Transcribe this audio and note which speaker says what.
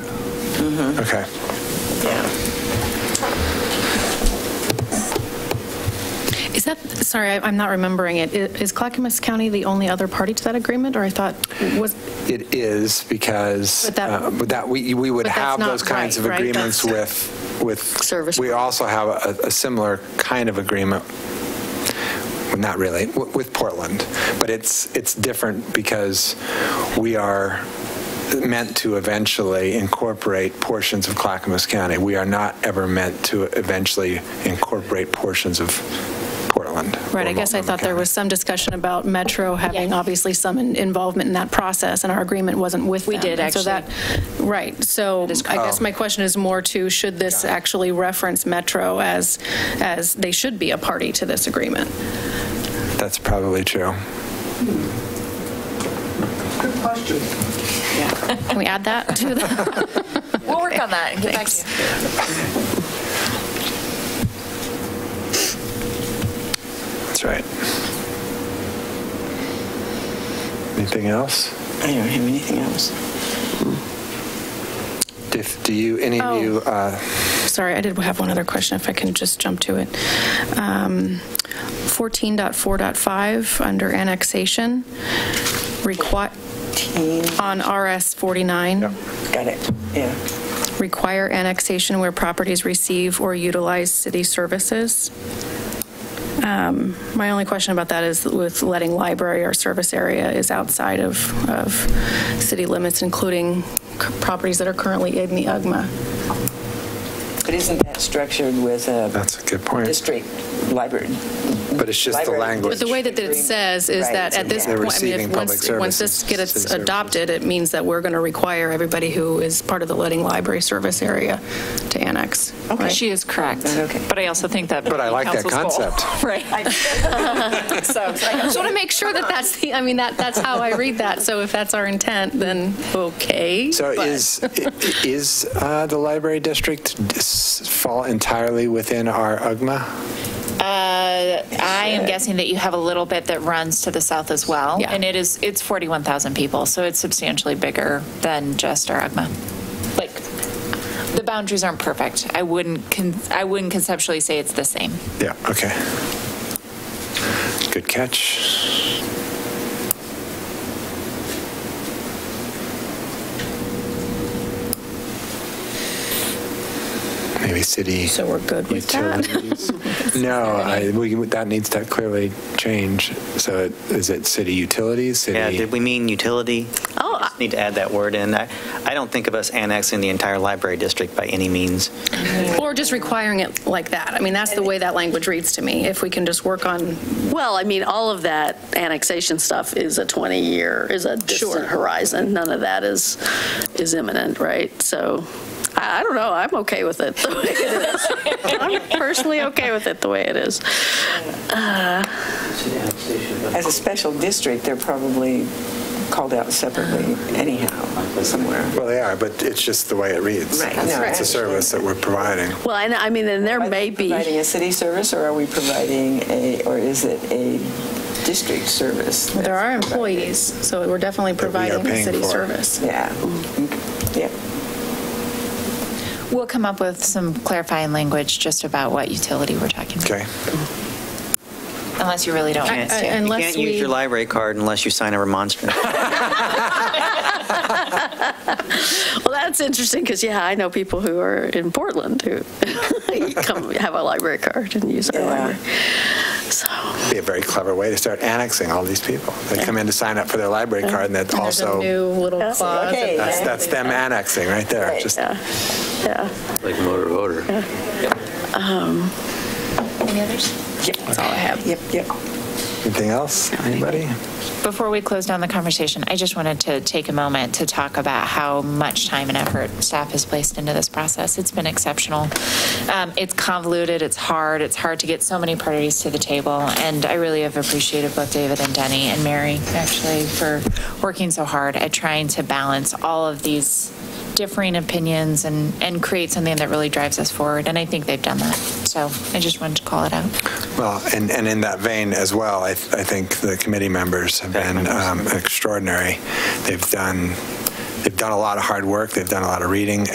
Speaker 1: Okay.
Speaker 2: Is that, sorry, I- I'm not remembering it. I- Is Clackamas County the only other party to that agreement, or I thought, was,
Speaker 1: It is because
Speaker 2: But that-
Speaker 1: uh, but that, we we would
Speaker 2: But that's
Speaker 1: have
Speaker 2: not
Speaker 1: those kinds
Speaker 2: right,
Speaker 1: of
Speaker 2: right?
Speaker 1: agreements with, with.
Speaker 3: Service
Speaker 1: We
Speaker 3: pro-
Speaker 1: also have a- a similar kind of agreement, Well, not really, w- with Portland. But it's, it's different because we are meant to eventually incorporate portions of Clackamas County. We are not ever meant to eventually incorporate portions of Portland. or
Speaker 2: right, I guess I
Speaker 1: Multnomah
Speaker 2: thought there
Speaker 1: County.
Speaker 2: was some discussion about Metro having obviously some in- involvement in that process, and our agreement wasn't with them.
Speaker 3: We did,
Speaker 2: And so that- Right, so I guess my question is more to, should this actually reference Metro as, as they should be a party to this agreement?
Speaker 1: That's probably true.
Speaker 4: Good question.
Speaker 2: Can we add that to the,
Speaker 3: We'll work on that and get back to you.
Speaker 1: That's right. Anything else?
Speaker 4: I don't have anything else.
Speaker 1: If, do you, any
Speaker 2: Oh.
Speaker 1: of you, uh,
Speaker 2: sorry, I did have one other question, if I can just jump to it. Um, 14.4.5, under annexation, require, on RS 49,
Speaker 4: Got it, yeah.
Speaker 2: require annexation where properties receive or utilize city services. Um, My only question about that is with letting library or service area is outside of, of city limits, including c- properties that are currently in the UGMA.
Speaker 4: But isn't that structured with a
Speaker 1: that's a good point.
Speaker 4: district library?
Speaker 1: But it's just the
Speaker 4: Library.
Speaker 1: language.
Speaker 2: But the way that it says is
Speaker 4: Right,
Speaker 2: that at this
Speaker 4: yeah.
Speaker 1: They're
Speaker 2: point, I mean, if
Speaker 1: receiving
Speaker 2: once,
Speaker 1: public
Speaker 2: once this
Speaker 1: services, city
Speaker 2: gets
Speaker 1: services.
Speaker 2: adopted, it means that we're going to require everybody who is part of the letting library service area to annex.
Speaker 4: Okay.
Speaker 2: right?
Speaker 5: She is correct.
Speaker 4: Okay.
Speaker 5: But I also think that.
Speaker 1: But I like that
Speaker 5: council's goal-
Speaker 1: concept.
Speaker 5: Right.
Speaker 2: I just want to make sure that that's the, I mean, that, that's how I read that. So if that's our intent, then okay.
Speaker 1: So
Speaker 2: but-
Speaker 1: is, i- is uh, the library district dis- fall entirely within our UGMA?
Speaker 5: I am guessing that you have a little bit that runs to the south as well.
Speaker 2: Yeah.
Speaker 5: And it is, it's 41,000 people, so it's substantially bigger than just Aragma. Like, the boundaries aren't perfect. I wouldn't, con- I wouldn't conceptually say it's the same.
Speaker 1: Yeah, okay. Good catch. Maybe city.
Speaker 2: So we're good with that?
Speaker 1: Utilities. No, I, we, that needs to clearly change. So it- is it city utilities, city?
Speaker 6: Yeah, did we mean utility?
Speaker 3: Oh,
Speaker 6: Just Need to add that word in. I I don't think of us annexing the entire library district by any means.
Speaker 2: Or just requiring it like that. I mean, that's the way that language reads to me. If we can just work on
Speaker 3: Well, I mean, all of that annexation stuff is a 20-year, is a distant horizon. None of that is, is imminent, right? So I I don't know, I'm okay with it the way it is. I'm personally okay with it the way it is.
Speaker 4: As a special district, they're probably called out separately anyhow, somewhere.
Speaker 1: Well, they are, but it's just the way it reads. It's
Speaker 4: Right. No,
Speaker 1: it's a
Speaker 4: actually-
Speaker 1: service that we're providing.
Speaker 3: Well, and I mean, and there
Speaker 4: Are
Speaker 3: may
Speaker 4: they
Speaker 3: be.
Speaker 4: Providing a city service, or are we providing a, or is it a district service?
Speaker 2: There are employees, so we're definitely
Speaker 1: we are
Speaker 2: providing
Speaker 1: paying
Speaker 2: city
Speaker 1: for.
Speaker 2: service.
Speaker 4: Yeah, Mm, yeah.
Speaker 5: We'll come up with some clarifying language just about what utility we're talking about,
Speaker 1: Okay.
Speaker 5: unless you really don't want us
Speaker 2: I- I-
Speaker 5: to.
Speaker 6: You
Speaker 2: Unless
Speaker 6: can't use
Speaker 2: we,
Speaker 6: your library card unless you sign a remonstrance.
Speaker 3: Well, that's interesting because, yeah, I know people who are in Portland who come have a library card and use our
Speaker 4: Yeah.
Speaker 3: library. So,
Speaker 1: Be a very clever way to start annexing all these people. They come in to sign up for their library card and that
Speaker 2: there's a
Speaker 1: also,
Speaker 2: new little
Speaker 3: Yeah.
Speaker 2: clause.
Speaker 4: Okay.
Speaker 2: about-
Speaker 1: that's, that's them annexing right there. Just
Speaker 3: yeah, yeah.
Speaker 7: Like motor voter.
Speaker 5: Any others?
Speaker 4: That's all Oh, I have. Yep, yep.
Speaker 1: anything else? Anybody?
Speaker 5: Before we close down the conversation, I just wanted to take a moment to talk about how much time and effort staff has placed into this process. It's been exceptional. Um, It's convoluted, it's hard, it's hard to get so many parties to the table, and I really have appreciated both David and Denny and Mary, actually, for working so hard at trying to balance all of these differing opinions and, and create something that really drives us forward, and I think they've done that. So I just wanted to call it out.
Speaker 1: Well, and, and in that vein as well, I, th- I think the committee members have been um, extraordinary. They've done, they've done a lot of hard work. They've done a lot of reading